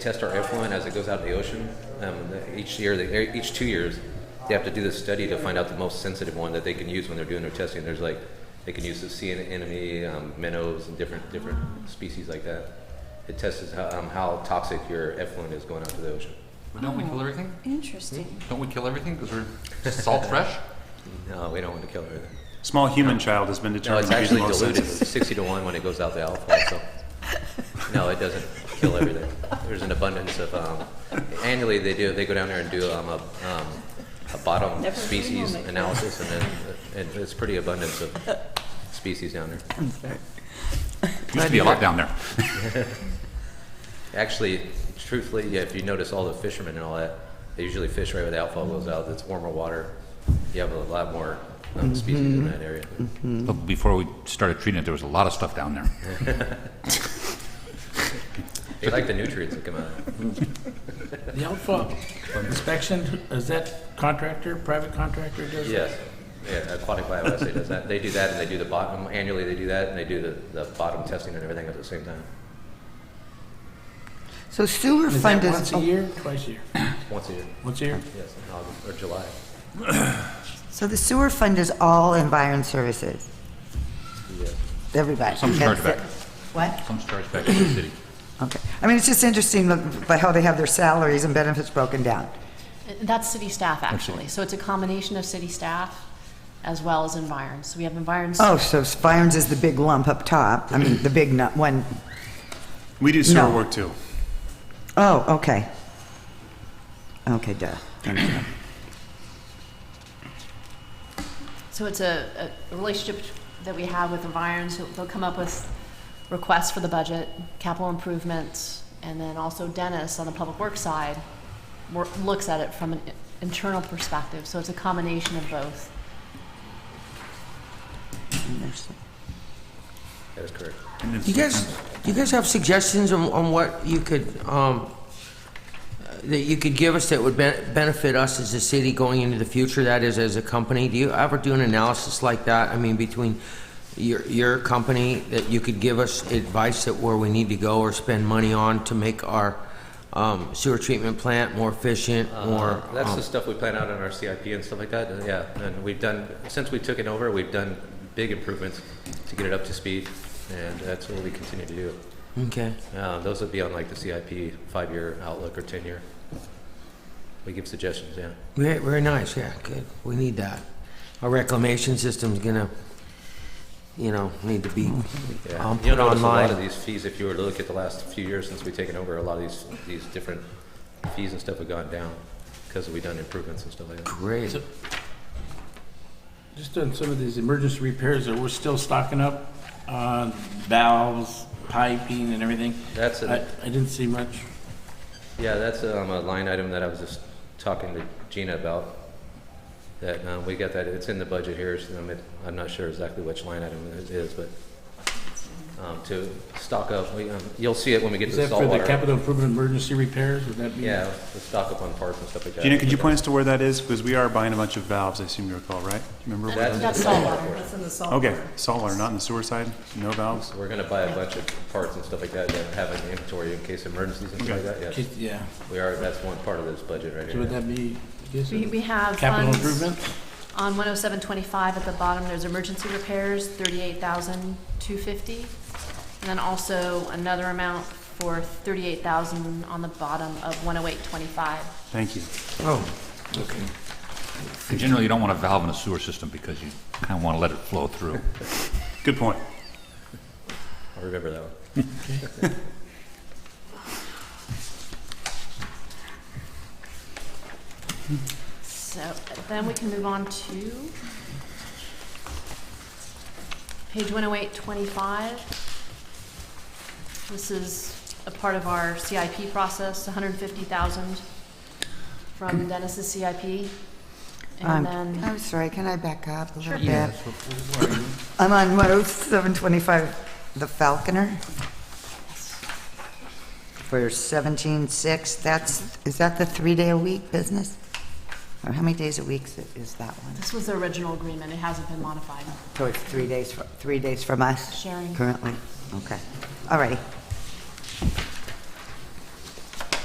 test our effluent as it goes out to the ocean. Um, the- each year, they, er, each two years, they have to do this study to find out the most sensitive one that they can use when they're doing their testing. There's like, they can use the sea anemone, um, minnows, and different different species like that. It tests how, um, how toxic your effluent is going out to the ocean. But don't we kill everything? Interesting. Don't we kill everything because we're salt fresh? No, we don't want to kill everything. Small human child has been No, it's determined to be the actually most diluted sensitive. sixty to one when it goes out the alcohol. So no, it doesn't kill everything. There's an abundance of um, annually they do they go down there and do um, a, um, a bottom Never seen species one like that. analysis and then and it's pretty abundance of species down there. Used to be a lot down there. Actually, truthfully, yeah, if you notice all the fishermen and all that, they usually fish right where the outfall goes out. It's warmer water. You have a lot more um, species in that area. But before we started treating it, there was a lot of stuff down there. They like the nutrients that come out. The outfall inspection, is that contractor, private contractor does that? Yes, yeah, Aquatic Biology does that. They do that and they do the bottom, annually they do that and they do the, the bottom testing and everything at the same time, So sewer Is that fund once is, a year, twice a year? once a year, Once a year? yes, in August or July. so the sewer fund is all environment services, Yes. everybody. Some That's chargeback. it. What? Some starts back to the city. Okay. I mean, it's just interesting, look, by how they have their salaries and benefits broken down. That's city staff, actually. So it's a combination of city staff as well as environs. So we have environs. Oh, so Spirens is the big lump up top, I mean, the big nu- one. We do sewer No. work too. Oh, okay. Okay, duh. Thank you. So it's a, a relationship that we have with environs. So They'll come up with requests for the budget, capital improvements, and then also Dennis on the public works side wor- looks at it from an internal perspective. So it's a combination of both. That is correct. And then Do you guys, sometimes- do you guys have suggestions on, on what you could, um, that you could give us that would ben- benefit us as a city going into the future, that is, as a company? Do you ever do an analysis like that? I mean, between your, your company, that you could give us advice that where we need to go or spend money on to make our um, sewer treatment plant more efficient, more? Uh, That's um, the stuff we plan out on our CIP and stuff like that, and yeah, and we've done, since we took it over, we've done big improvements to get it up to speed, and that's what we continue to do. Okay. Uh, those would be on like the CIP five-year outlook or ten-year. We give suggestions, yeah. Very, very nice, yeah, good. We need that. Our reclamation system's gonna, you know, need to be Yeah, um, you'll notice a put lot of online. these fees, if you were to look at the last few years since we've taken over, a lot of these, these different fees and stuff have gone down because we've done improvements and stuff like that. Great. Just on some of these emergency repairs that we're still stocking up on valves, piping and everything. That's, I, a- I didn't see much. yeah, that's um, a line item that I was just talking to Gina about. That, um, we got that, it's in the budget here, so I'm, I'm not sure exactly which line item it is, but, um, to stock up, we, um, you'll see it when we get to Is the that for the saltwater. capital improvement emergency repairs? Would that be? Yeah, to stock up on parts and stuff like that. Gina, could you point us to where that is? Because we are buying a bunch of valves, I assume you recall, right? Do you Remember where? That's, that- That's saltwater. Okay, saltwater, not in the sewer side, no valves? So We're gonna buy a bunch of parts and stuff like that, that have an inventory in case of emergencies and stuff like that, yes. Yeah. We are, that's one part of this budget right So here. would that be, I guess, We, we have capital funds improvement? On 10725 at the bottom, there's emergency repairs, 38,250. And then also another amount for 38,000 on the bottom of 10825. Thank you. Oh, and Generally, you don't want a valve in a sewer system because you kind of want to let it flow through. Good point. I'll remember that one. So then we can move on to page 10825. This is a part of our CIP process, 150,000 from Dennis's CIP. Um, And then. I'm sorry, can I back up a little yeah. bit? I'm on 10725, the Falconer. For 176, that's, is that the three-day-a-week business? Or how many days a week is- is that one? This was the original agreement, it hasn't been modified. So it's three days, fr- three days from us? Sharing. Currently, okay. All righty.